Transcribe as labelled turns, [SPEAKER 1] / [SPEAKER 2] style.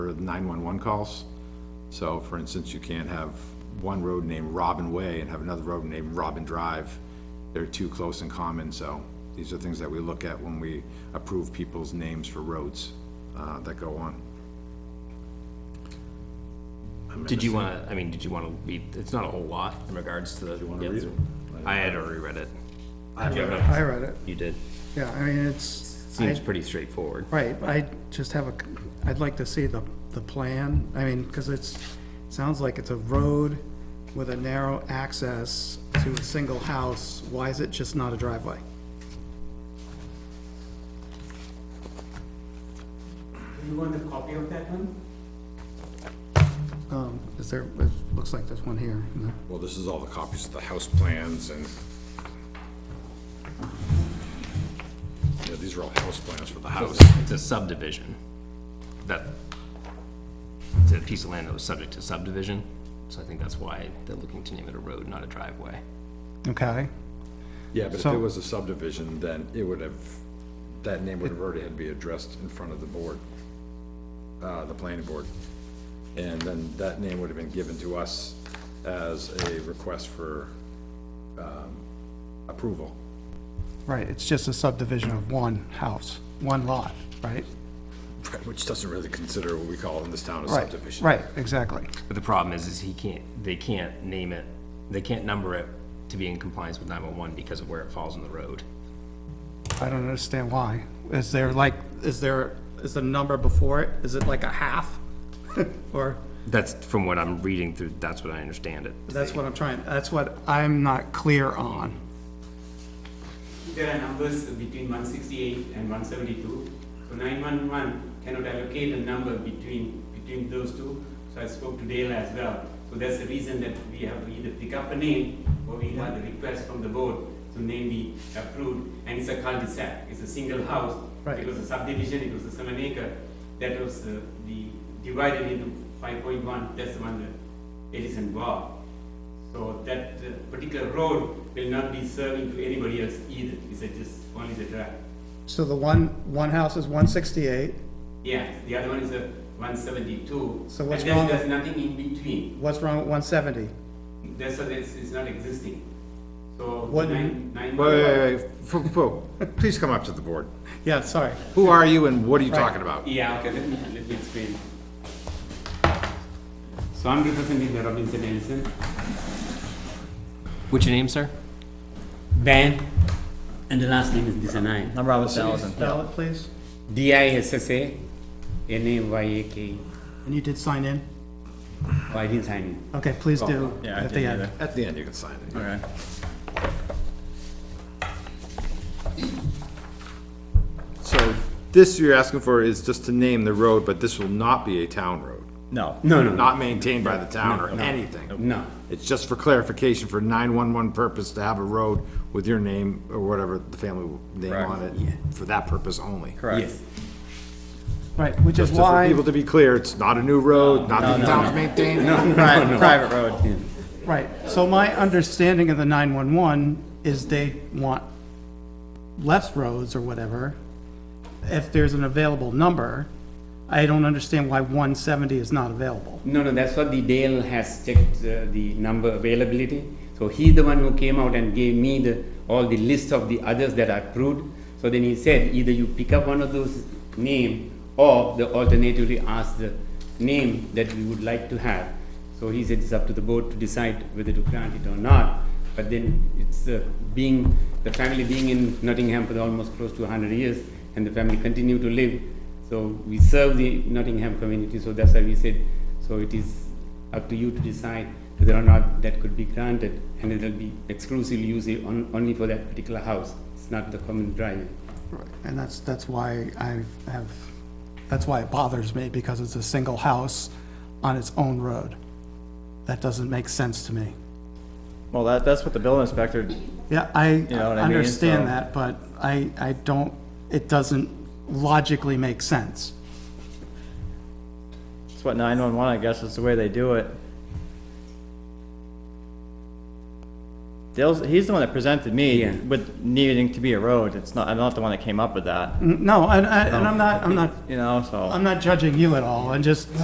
[SPEAKER 1] for 911 calls. So for instance, you can't have one road named Robin Way and have another road named Robin Drive. They're too close in common, so these are things that we look at when we approve people's names for roads uh, that go on.
[SPEAKER 2] Did you wanna, I mean, did you wanna read, it's not a whole lot in regards to the. Do you wanna
[SPEAKER 1] read it?
[SPEAKER 2] I had already read it.
[SPEAKER 3] I read it,
[SPEAKER 2] You did.
[SPEAKER 3] yeah, I mean, it's,
[SPEAKER 2] Seems pretty straightforward.
[SPEAKER 3] right, I just have a, I'd like to see the, the plan, I mean, because it's, sounds like it's a road with a narrow access to a single house, why is it just not a driveway?
[SPEAKER 4] You want a copy of that one?
[SPEAKER 3] Um, is there, it looks like there's one here, you know.
[SPEAKER 1] Well, this is all the copies of the house plans and yeah, these are all house plans for the house.
[SPEAKER 2] It's a subdivision. That, it's a piece of land that was subject to subdivision, so I think that's why they're looking to name it a road, not a driveway.
[SPEAKER 3] okay,
[SPEAKER 1] Yeah, but if
[SPEAKER 3] So-
[SPEAKER 1] it was a subdivision, then it would have, that name would have already had to be addressed in front of the board, uh, the planning board. And then that name would have been given to us as a request for, um, approval.
[SPEAKER 3] right, it's just a subdivision of one house, one lot, right?
[SPEAKER 1] Which doesn't really consider what we call in this town a
[SPEAKER 3] Right,
[SPEAKER 1] subdivision.
[SPEAKER 3] right, exactly,
[SPEAKER 2] But the problem is, is he can't, they can't name it, they can't number it to be in compliance with nine-one-one because of where it falls in the road.
[SPEAKER 3] I don't understand why, is there like, is there, is the number before it, is it like a half? Or?
[SPEAKER 2] That's from what I'm reading through, that's what I understand it.
[SPEAKER 3] That's what I'm trying, that's what I'm not clear on.
[SPEAKER 4] There are numbers between 168 and 172. So 911 cannot allocate a number between, between those two. So I spoke to Dale as well. So that's the reason that we have to either pick up a name or we have the request from the board to name be approved. And it's a cul-de-sac, it's a single house.
[SPEAKER 3] Right.
[SPEAKER 4] It was a subdivision, it was a seven acre. That was uh, the, divided into 5.1, that's the one that it is involved. So that uh, particular road will not be serving to anybody else either, it's uh, just only the drive.
[SPEAKER 3] So the one, one house is one sixty-eight,
[SPEAKER 4] Yeah, the other one is a one seventy-two.
[SPEAKER 3] So what's
[SPEAKER 4] And
[SPEAKER 3] wrong
[SPEAKER 4] then there's nothing in between,
[SPEAKER 3] what's wrong with one seventy?
[SPEAKER 4] that's, so that's, it's not existing. So
[SPEAKER 3] What-
[SPEAKER 4] nine, nine.
[SPEAKER 1] Wait, wait, wait, Fo- fo- please come up to the board.
[SPEAKER 3] Yeah, sorry.
[SPEAKER 1] Who are you and what are you
[SPEAKER 3] Right.
[SPEAKER 1] talking about?
[SPEAKER 4] Yeah, okay, let me, let me explain. So I'm representing the Robinson Edison.
[SPEAKER 2] What's your name, sir?
[SPEAKER 4] Dan, and the last name is Disanay.
[SPEAKER 5] I'm Robert Salatin.
[SPEAKER 3] Spell it, please.
[SPEAKER 4] D I S S A N A Y A K. E.
[SPEAKER 3] And you did sign in?
[SPEAKER 4] Oh, I didn't sign in.
[SPEAKER 3] Okay, please
[SPEAKER 1] Oh,
[SPEAKER 3] do
[SPEAKER 5] yeah, I
[SPEAKER 3] at the
[SPEAKER 5] didn't
[SPEAKER 3] end.
[SPEAKER 5] either.
[SPEAKER 1] At the end, you can sign it.
[SPEAKER 5] Okay.
[SPEAKER 1] So this you're asking for is just to name the road, but this will not be a town road.
[SPEAKER 5] No.
[SPEAKER 4] No, no,
[SPEAKER 1] Not maintained by the town or anything.
[SPEAKER 4] no.
[SPEAKER 1] It's just for clarification for nine-one-one purpose to have a road with your name or whatever the family name
[SPEAKER 5] Correct.
[SPEAKER 1] on it, for that purpose only.
[SPEAKER 5] Correct.
[SPEAKER 3] Right, which is
[SPEAKER 1] Just for
[SPEAKER 3] why,
[SPEAKER 1] people to be clear, it's not a new road, not that the
[SPEAKER 5] no,
[SPEAKER 1] town's maintaining. it.
[SPEAKER 5] Private, private road.
[SPEAKER 3] right, so my understanding of the nine-one-one is they want less roads or whatever, if there's an available number. I don't understand why one seventy is not available.
[SPEAKER 4] No, no, that's what the Dale has checked uh, the number availability. So he's the one who came out and gave me the, all the list of the others that are approved. So then he said, either you pick up one of those name or the alternatively ask the name that we would like to have. So he said it's up to the board to decide whether to grant it or not. But then it's uh, being, the family being in Nottingham for almost close to 100 years and the family continue to live. So we serve the Nottingham community, so that's why we said, so it is up to you to decide whether or not that could be granted, and it'll be exclusive use on, only for that particular house. It's not the common driveway.
[SPEAKER 3] And that's, that's why I have, that's why it bothers me, because it's a single house on its own road. That doesn't make sense to me.
[SPEAKER 5] Well, that, that's what the building inspector,
[SPEAKER 3] Yeah, I
[SPEAKER 5] know what I mean,
[SPEAKER 3] understand
[SPEAKER 5] so-
[SPEAKER 3] that, but I, I don't, it doesn't logically make sense.
[SPEAKER 5] it's what nine-one-one, I guess, is the way they do it. Dale's, he's the one that presented me
[SPEAKER 4] Yeah.
[SPEAKER 5] with needing to be a road. It's not, I'm not the one
[SPEAKER 3] Mm.
[SPEAKER 5] that came up with that,
[SPEAKER 3] No, and, I- and I'm not, I'm not,
[SPEAKER 5] you know, so.
[SPEAKER 3] I'm not judging you at all, I'm just